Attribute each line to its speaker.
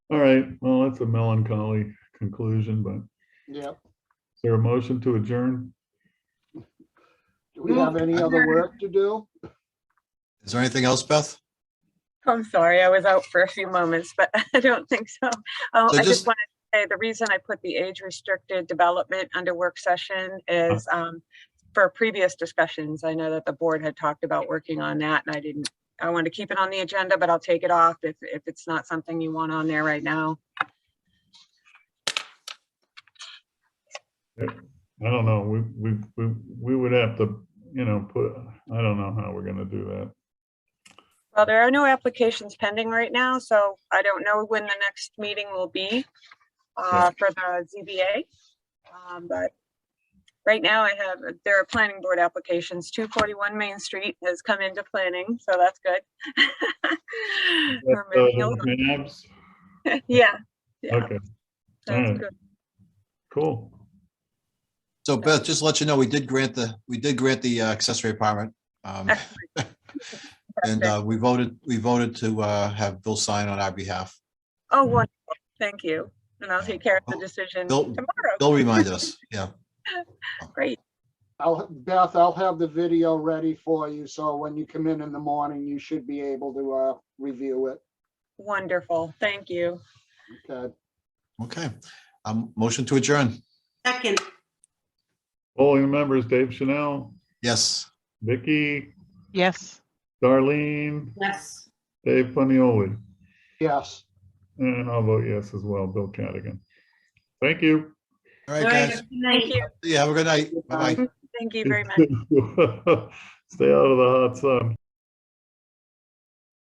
Speaker 1: All right, well, that's a melancholy conclusion, but is
Speaker 2: Yep.
Speaker 1: there a motion to adjourn?
Speaker 2: Do we have any other work to do?
Speaker 3: Is there anything else, Beth?
Speaker 4: I'm sorry, I was out for a few moments, but I don't think so. Oh,
Speaker 3: So
Speaker 4: I
Speaker 3: just-
Speaker 4: just wanted to say, the reason I put the age restricted development under work session is um, for previous discussions, I know that the board had talked about working on that and I didn't, I want to keep it on the agenda, but I'll take it off if, if it's not something you want on there right now.
Speaker 1: I don't know, we, we, we, we would have to, you know, put, I don't know how we're gonna do that.
Speaker 4: Well, there are no applications pending right now, so I don't know when the next meeting will be uh, for the ZBA. Um, But right now I have, there are planning board applications. 241 Main Street has come into planning, so that's good. We're
Speaker 1: Uh,
Speaker 4: moving along.
Speaker 1: Maps,
Speaker 4: Yeah, yeah,
Speaker 1: okay,
Speaker 4: that's
Speaker 1: alright.
Speaker 4: good.
Speaker 1: cool.
Speaker 3: So Beth, just to let you know, we did grant the, we did grant the uh, accessory apartment. um, And uh, we voted, we voted to uh, have Bill sign on our behalf.
Speaker 4: Oh, wonderful, thank you. And I'll take care of the decision
Speaker 3: Bill-
Speaker 4: tomorrow.
Speaker 3: Bill reminded us, yeah.
Speaker 4: Great,
Speaker 2: I'll, Beth, I'll have the video ready for you, so when you come in in the morning, you should be able to, uh, review it.
Speaker 4: wonderful, thank you.
Speaker 2: Okay.
Speaker 3: Okay. Um, Motion to adjourn.
Speaker 5: Second,
Speaker 1: Polling members, Dave Chanel,
Speaker 3: Yes.
Speaker 1: Vicky,
Speaker 6: Yes.
Speaker 1: Darlene,
Speaker 5: yes.
Speaker 1: Dave Panioli,
Speaker 2: Yes.
Speaker 1: and I'll vote yes as well, Bill Cadigan. Thank you.
Speaker 3: All
Speaker 5: All
Speaker 3: right,
Speaker 5: right,
Speaker 3: guys.
Speaker 5: good night.
Speaker 4: Thank you,
Speaker 3: Yeah, have a good night. Bye-bye.
Speaker 4: thank you very much.
Speaker 1: Stay out of the hot sun.